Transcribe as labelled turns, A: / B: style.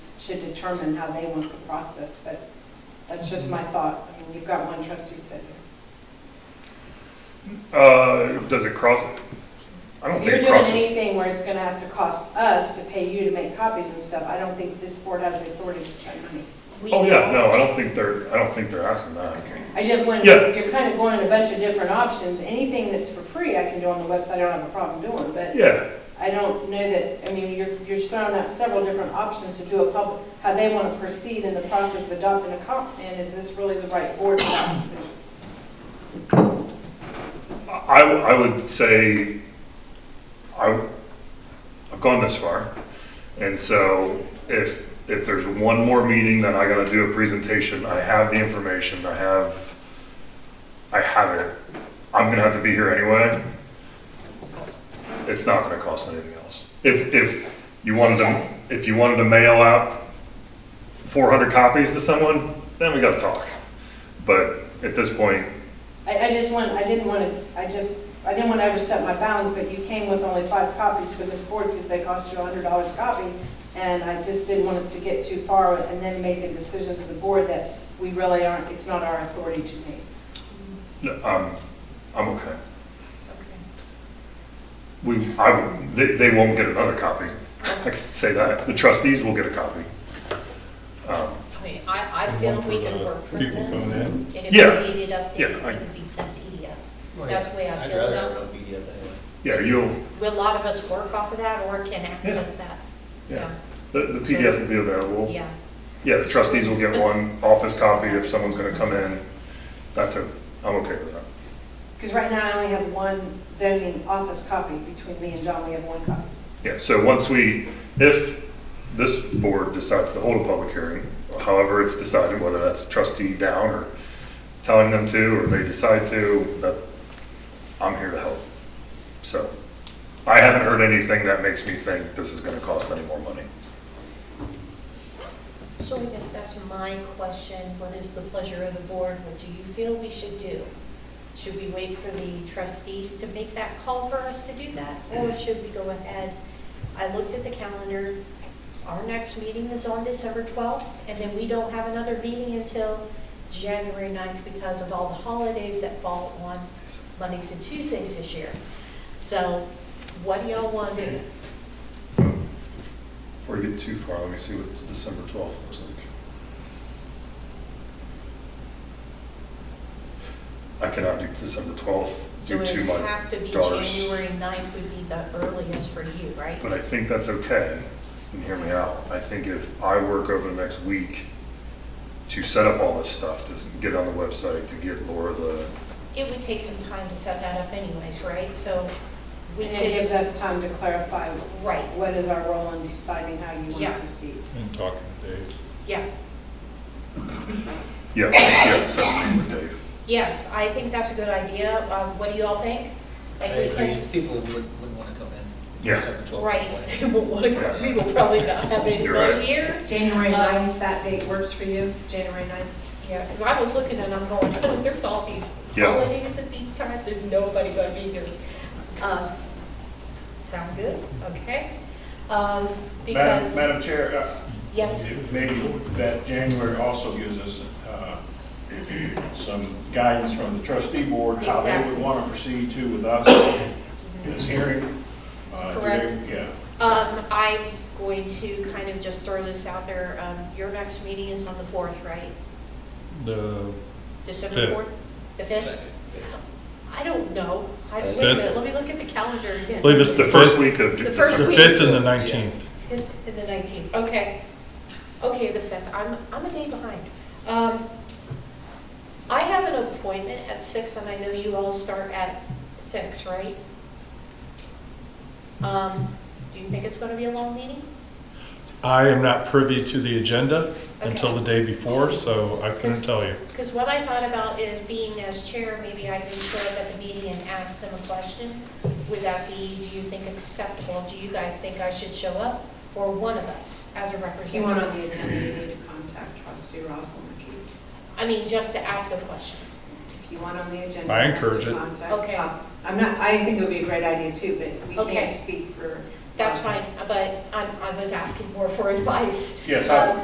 A: should determine how they want the process, but that's just my thought. I mean, you've got one trustee sitting
B: Uh, does it cross? I don't
A: If you're
B: think it
A: doing
B: crosses.
A: anything where it's gonna have to cost us to pay you to make copies and stuff, I don't think this board has the authority to spend money.
C: We
B: Oh, yeah,
C: do.
B: no, I don't think they're, I don't think they're asking that.
A: I just want,
B: Yeah.
A: you're kind of going in a bunch of different options. Anything that's for free, I can do on the website, I don't have a problem doing, but
B: Yeah,
A: I don't know that, I mean, you're, you're throwing out several different options to do a public, how they want to proceed in the process of adopting a comp plan. Is this really the right board for that decision?
B: I, I would say, I, I've gone this far. And so if, if there's one more meeting that I gotta do a presentation, I have the information, I have, I have it. I'm gonna have to be here anyway. It's not gonna cost anything else. If, if you wanted to, if you wanted to mail out four hundred copies to someone, then we gotta talk. But at this point,
A: I, I just want, I didn't want to, I just, I didn't want to overstep my bounds, but you came with only five copies for this board because they cost you a hundred dollars a copy. And I just didn't want us to get too far and then make a decision to the board that we really aren't, it's not our authority to make.
B: no, I'm, um, I'm okay.
C: Okay.
B: We, I, they, they won't get another copy. I can say that. The trustees will get a copy. Um,
C: I mean, I, I feel we can work for
D: People coming
C: this.
D: in.
C: And
B: Yeah.
C: if we needed
B: Yeah,
C: updated,
B: I-
C: it could be sent PDF. That's the way I feel
D: would rather
C: about
D: have a PDF anyway.
B: Yeah, you'll,
C: Will a lot of us work off of that or can access that?
B: yeah, the, the PDF will be available.
C: Yeah.
B: Yeah, the trustees will get one office copy if someone's gonna come in. That's a, I'm okay with that.
A: Because right now I only have one zoning office copy between me and John, we have one copy.
B: Yeah, so once we, if this board decides to hold a public hearing, however it's decided, whether that's trustee down or telling them to, or they decide to, that, I'm here to help. So, I haven't heard anything that makes me think this is gonna cost any more money.
C: So I guess that's my question. What is the pleasure of the board? What do you feel we should do? Should we wait for the trustees to make that call for us to do that? Or should we go ahead? I looked at the calendar. Our next meeting is on December 12th, and then we don't have another meeting until January 9th because of all the holidays that fall on Mondays and Tuesdays this year. So what do y'all want to do?
B: Before you get too far, let me see what December twelfth looks like. I cannot do December twelfth
C: So
B: due
C: it
B: to
C: would
B: my
C: have to be
B: daughter's-
C: January 9th would be the earliest for you, right?
B: But I think that's okay, and hear me out. I think if I work over the next week to set up all this stuff, to get on the website, to get Laura the,
C: It would take some time to set that up anyways, right? So we
A: And it gives
C: could,
A: us time to clarify
C: right,
A: what is our role in deciding how you want to
C: Yeah.
A: proceed.
D: And talking to Dave.
C: yeah.
B: yeah, yeah, set up with Dave.
C: Yes, I think that's a good idea. Um, What do you all think?
D: I
C: Like we
D: agree,
C: can,
D: people wouldn't, wouldn't wanna come in.
B: Yeah.
D: Seven, twelve,
C: right,
D: one.
C: we will want to, we will probably not have
B: You're right.
C: anybody here.
A: January
C: Uh,
A: 9th, that date works for you, January 9th?
C: Yeah, because I was looking and I'm going, there's all these
B: Yeah.
C: holidays at these times, there's nobody going to be here. Um, Sound good? Okay. Um,
E: Madam
C: Because,
E: Madam Chair, uh,
C: yes,
E: maybe that January also gives us uh, some guidance from the trustee board, how they would
C: Exactly.
E: want to proceed too with us in this hearing. Uh, do they-
C: Correct.
E: Yeah.
C: Um, I'm going to kind of just throw this out there. Um, your next meeting is on the fourth, right?
F: The,
C: December
F: Fifth.
C: fourth? The fifth? I don't know. I, wait a
F: Fifth.
C: minute, let me look at the calendar. Yes.
F: believe it's
B: The
F: the
B: first
F: fifth,
B: week of
C: The
F: the
C: first
B: December.
C: week.
F: fifth and the nineteenth.
C: Fifth and the nineteenth, okay. Okay, the fifth, I'm, I'm a day behind. Um, I have an appointment at six, and I know you all start at six, right? Um, do you think it's gonna be a long meeting?
F: I am not privy to the agenda until
C: Okay.
F: the day before, so I
C: Yes.
F: couldn't tell you.
C: Because what I thought about is being as chair, maybe I can show up at the meeting and ask them a question. Would that be, do you think acceptable? Do you guys think I should show up? Or one of us as a
A: If you want
C: representative?
A: on the agenda, you need to contact trustee Roswell McKee.
C: I mean, just to ask a question.
A: If you want on the agenda.
F: I
A: you have to
F: encourage it.
A: contact
C: Okay.
A: Tom. I'm not, I think it would be a great idea too, but we
C: Okay.
A: can't speak for.
C: That's fine, but I'm, I was asking more for advice.
E: Yes, I-
C: Um,